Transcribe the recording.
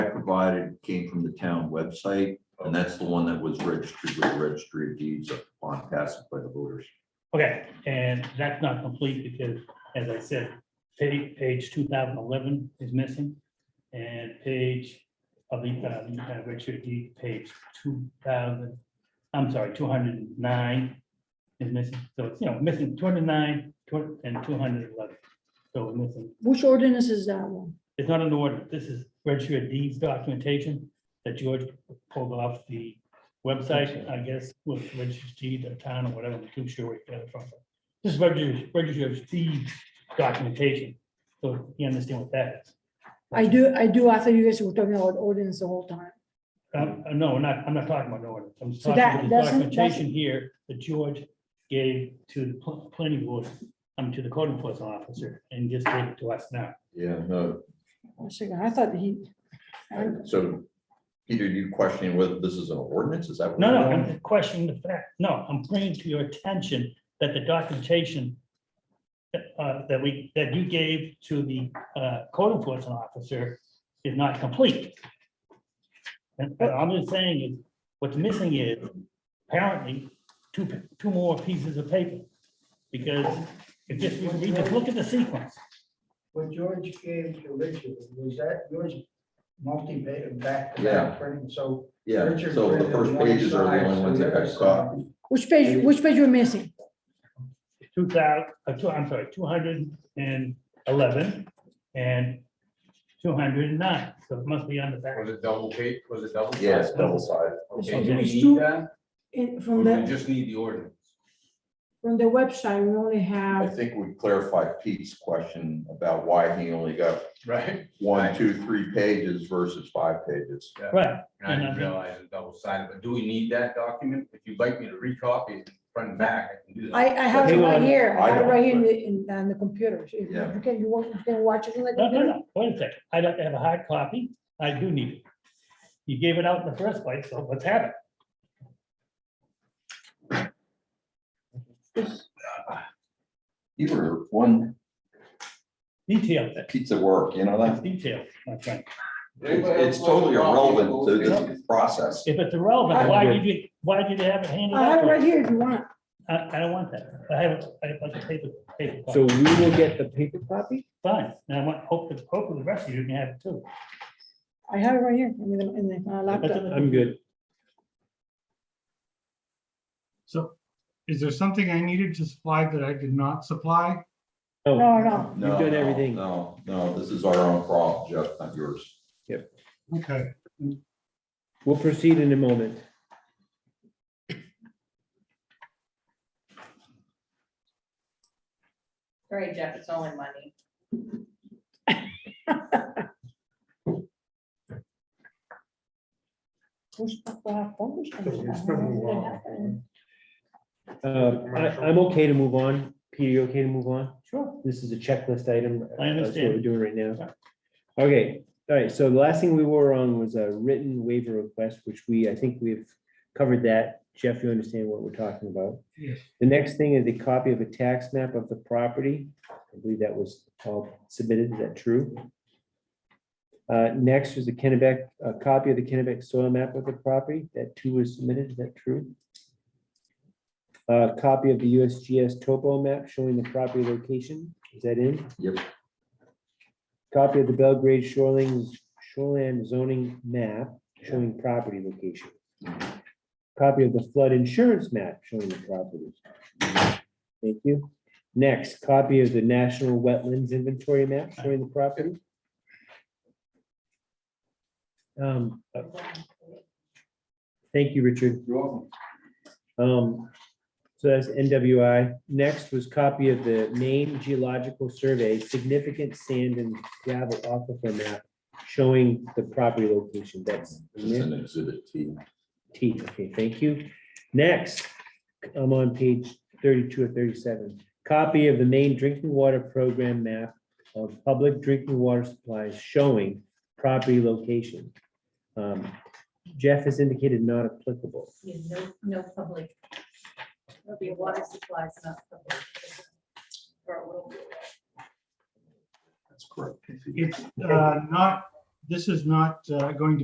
provided came from the town website, and that's the one that was registered with the registry of deeds upon passage by the voters. Okay, and that's not complete because, as I said, page, page two thousand eleven is missing. And page of the, uh, uh, Richard D, page two thousand, I'm sorry, two hundred and nine is missing. So it's, you know, missing two hundred and nine, two, and two hundred and eleven. So we're missing, Which ordinance is that one? it's not an order. This is registry of deeds documentation that George pulled off the website, I guess, with registry deed of town or whatever, I'm too sure where he got it from. This is registry, registry of deeds documentation. So you understand what that is. I do, I do, I thought you guys were talking about ordinance the whole time. Um, uh, no, we're not, I'm not talking about no ordinance. I'm So talking that about the doesn't- documentation here that George gave to the pl- planning board, um, to the code enforcement officer and just gave it to us now. Yeah, no, One second, I thought he, I- so Peter, you questioning whether this is an ordinance, is that? what No, we're no, doing? I'm questioning the fact, no, I'm bringing to your attention that the documentation that, uh, that we, that you gave to the, uh, code enforcement officer is not complete. And what I'm just saying is, what's missing is apparently two, p- two more pieces of paper. Because if just, we read this, look at the sequence, What George gave to Richard, was that yours multi-page, back to Yeah. back printing, so. Yeah, Richard so the printed first one pages are side, the only so ones that other got stopped. side- which page, which page you're missing? two thousand, uh, two, I'm sorry, two hundred and eleven and two hundred and nine, so it must be on the back. Was it double page, was it double? Yes, sided? double sided. Okay, It's do we always need two- that? In, Or from do we the, just need the ordinance? from the website, we only I have, think we clarified Pete's question about why he only got Right. one, two, three pages verses five pages. Right, I didn't realize it's double sided, but do we need that document? If you'd like me to recopy it front and back, I can do that. I, I have it Hang right on. here, I I have it don't- right here in the, in, on the computer. If you- Yeah. You can, you want, you can watch it in the no, no, computer. no, wait a second, I'd like to have a hard copy, I do need it. You gave it out in the first place, so let's have it. You were one Details, pizza work, you know it's that? details, my friend. It's it's totally irrelevant to this process. If it's irrelevant, why did you, why did you have it handed I have out? it to right us? here if you want. I, I don't want that, I have, I have like a paper, paper. So copy. we will get the paper copy? Fine, and I want, hope, that- hopefully the rest of you can have it too. I have it right here in the, in the uh, laptop. I'm good. So is there something I needed to supply that I did not supply? Oh, No, no, No, You've done no, everything. No, no, this is our own problem, Jeff, not yours. Okay. We'll proceed in a moment. All right, Jeff, it's only money. who's, I have published. I So don't know it's been a what while. happened. Uh, I, I'm okay to move on. Peter, you okay to move on? Sure. This is a checklist item. Uh, I That's what we're understand. doing right now. Okay, all right, so the last thing we were on was a written waiver request, which we, I think we've covered that. Jeff, you understand what we're talking about? Yes. The next thing is a copy of a tax map of the property. I believe that was all submitted, is that true? Uh, next was the Kennebec, a copy of the Kennebec soil map of the property, that too was submitted, is that true? A copy of the USGS topo map showing the property location, is that in? Yep. Copy of the Belgrade shoreline shoreline zoning map showing property location. Copy of the flood insurance map showing the property. Thank you. Next, copy of the National Wetlands Inventory map showing the property. Um, uh, Thank you, Richard. You're welcome. Um, so that's NWI. Next was copy of the Maine Geological Survey Significant Sand and Gravel Aquifer Map showing the property location. That's in It's there. an exhibit T. T, okay, thank you. Next, I'm on page thirty-two or thirty-seven. Copy of the main drinking water program map of public drinking water supplies showing property location. Um, Jeff has indicated not applicable. Yeah, no, no public. There'll be water supplies, not public. Or a little. That's correct. It's uh, not, this is not uh, going to